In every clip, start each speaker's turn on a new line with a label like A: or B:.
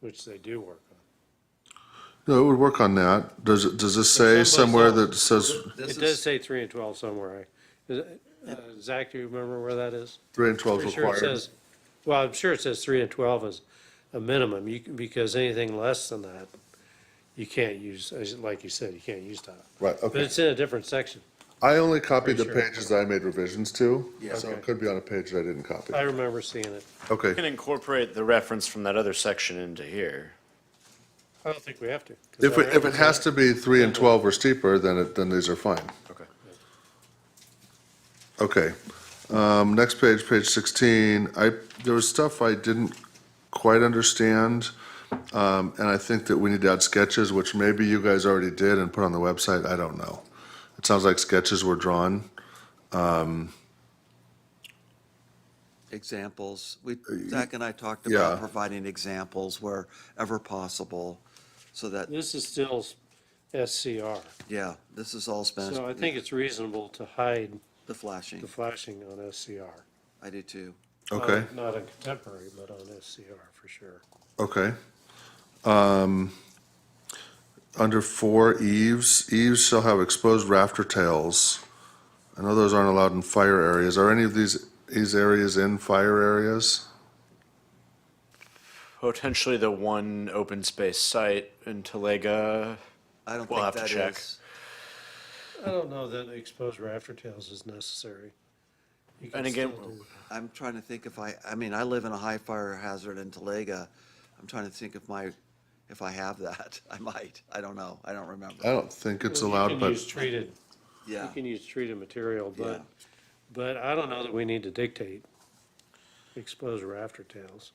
A: which they do work on.
B: No, it would work on that. Does, it does this say
A: It's on both
B: somewhere
A: sides.
B: that says
C: This
A: It does
C: is,
A: say three and twelve somewhere. I- is it- uh, Zach, do you remember where that is?
B: three and twelve
A: Pretty
B: is
A: sure it
B: required?
A: says, well, I'm sure it says three and twelve is a minimum, you, can- because anything less than that, you can't use, as- like you said, you can't use that.
B: Right,
A: But
B: okay.
A: it's in a different section.
B: I only copied the
A: Pretty sure.
B: pages that I made revisions to,
C: Yeah.
B: so
A: Okay.
B: it could be on a page that I didn't copy.
A: I remember seeing it.
B: Okay.
D: can incorporate the reference from that other section into here.
A: I don't think we have to. 'cause
B: If,
A: I
B: it- if it
A: remember
B: has
A: seeing
B: to be three and twelve or steeper, then it, then these are fine.
D: Okay.
B: Okay. Um, next page, page sixteen, I, there was stuff I didn't quite understand. Um, and I think that we need to add sketches, which maybe you guys already did and put on the website, I don't know. It sounds like sketches were drawn.
C: examples, we, Zach and I talked
B: Uh, Yeah.
C: about providing examples wherever possible, so that,
A: This is still s- SCR,
C: yeah, this is all spent,
A: so I think it's reasonable to hide
C: the flashing,
A: the flashing on SCR.
C: I do too.
A: Not-
B: Okay,
A: Not on contemporary, but on SCR for sure.
B: okay. Um, under four eaves, eaves shall have exposed rafter tails. I know those aren't allowed in fire areas. Are any of these, these areas in fire areas?
D: Potentially the one open space site in Talega.
C: I don't
D: We'll
C: think
D: have
C: that
D: to check.
C: is,
A: I don't know that exposed rafter tails is necessary. You can
D: And again,
A: still do-
C: I'm trying to think if I, I mean, I live in a high fire hazard in Talega. I'm trying to think if my, if I have that, I might, I don't know, I don't
B: I
C: remember,
B: don't think it's
A: You
B: allowed,
A: can
B: but.
A: use Treated, you
C: yeah.
A: can use treated material, but,
C: Yeah.
A: but I don't know that we need to dictate exposed rafter tails.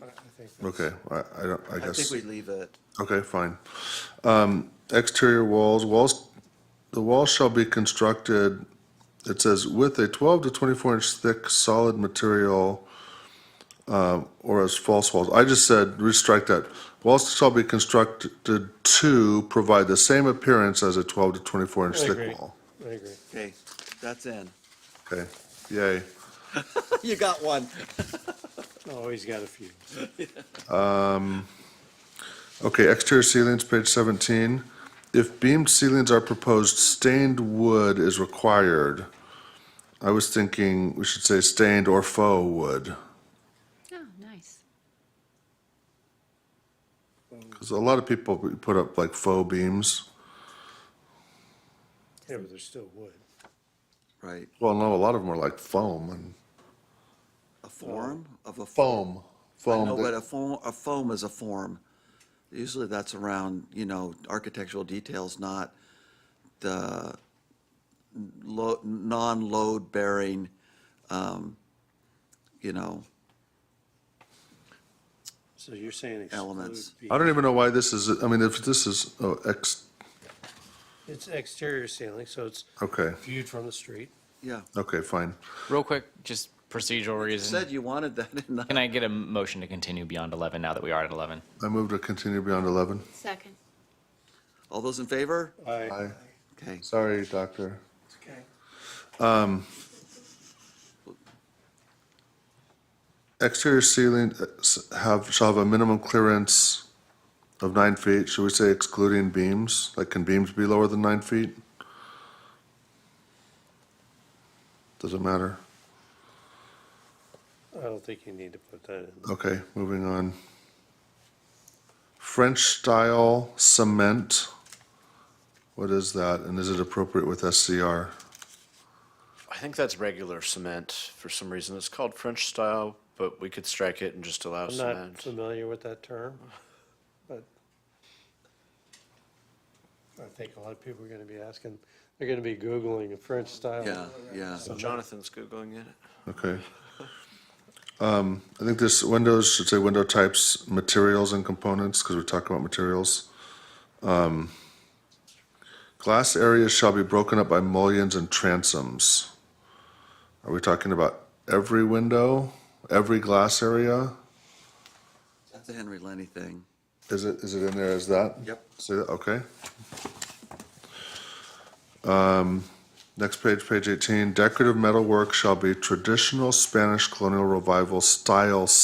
A: I I think that's-
B: Okay, I, I don't, I
C: I think
B: guess,
C: we leave it,
B: okay, fine. Um, exterior walls, walls, the walls shall be constructed, it says with a twelve to twenty-four inch thick solid material, um, or as false walls, I just said, restrike that. Walls shall be constructed to provide the same appearance as a twelve to twenty-four inch
A: I
B: thick
A: agree.
B: wall.
A: I agree.
C: okay, that's in,
B: Okay, yay.
C: you got one.
A: Oh, he's got a few.
B: Okay, exterior ceilings, page 17. If beamed ceilings are proposed, stained wood is required. I was thinking we should say stained or faux wood,
E: Oh, nice.
B: because a lot of people put up like faux beams.
A: Yeah, but there's still wood.
C: Right,
B: Well, no, a lot of them are like foam and.
C: a form of a.
B: Uh, Foam.
C: No,
B: Foam.
C: but
B: that-
C: a foam, a foam is a form. Usually that's around, you know, architectural details, not the lo, non-load bearing, um, you know,
A: So you're saying exclude.
C: Elements.
A: be-
B: I don't even know why this is, I mean, if this is, oh, ex,
A: It's exterior ceiling, so it's
B: okay,
A: viewed from the street.
C: yeah.
B: okay, fine.
F: Real quick, just procedural reason.
C: Said you wanted that in the.
F: Can I get a motion to continue beyond 11 now that we are at 11?
B: I move to continue beyond 11.
E: Second.
C: All those in favor?
A: I,
B: Aye.
C: Okay.
B: Sorry, doctor.
C: Okay.
B: Exterior ceiling uh, s- have, shall have a minimum clearance of nine feet, should we say excluding beams? Like, can beams be lower than nine feet? Does it matter?
A: I don't think you need to put that in.
B: Okay, moving on. French-style cement, what is that, and is it appropriate with SCR?
D: I think that's regular cement for some reason. It's called French style, but we could strike it and just allow
A: I'm not
D: cement.
A: familiar with that term, but I think a lot of people are gonna be asking, they're gonna be Googling a French style.
C: Yeah, yeah.
D: Jonathan's Googling it.
B: Okay. Um, I think this windows should say window types, materials and components, because we're talking about materials. Um, Glass areas shall be broken up by mullions and transoms. Are we talking about every window, every glass area?
C: That's a Henry Lenny thing.
B: Is it, is it in there as that?
C: Yep.
B: Say that, okay. Um, Um, next page, page eighteen, decorative metalwork shall be traditional Spanish colonial revival style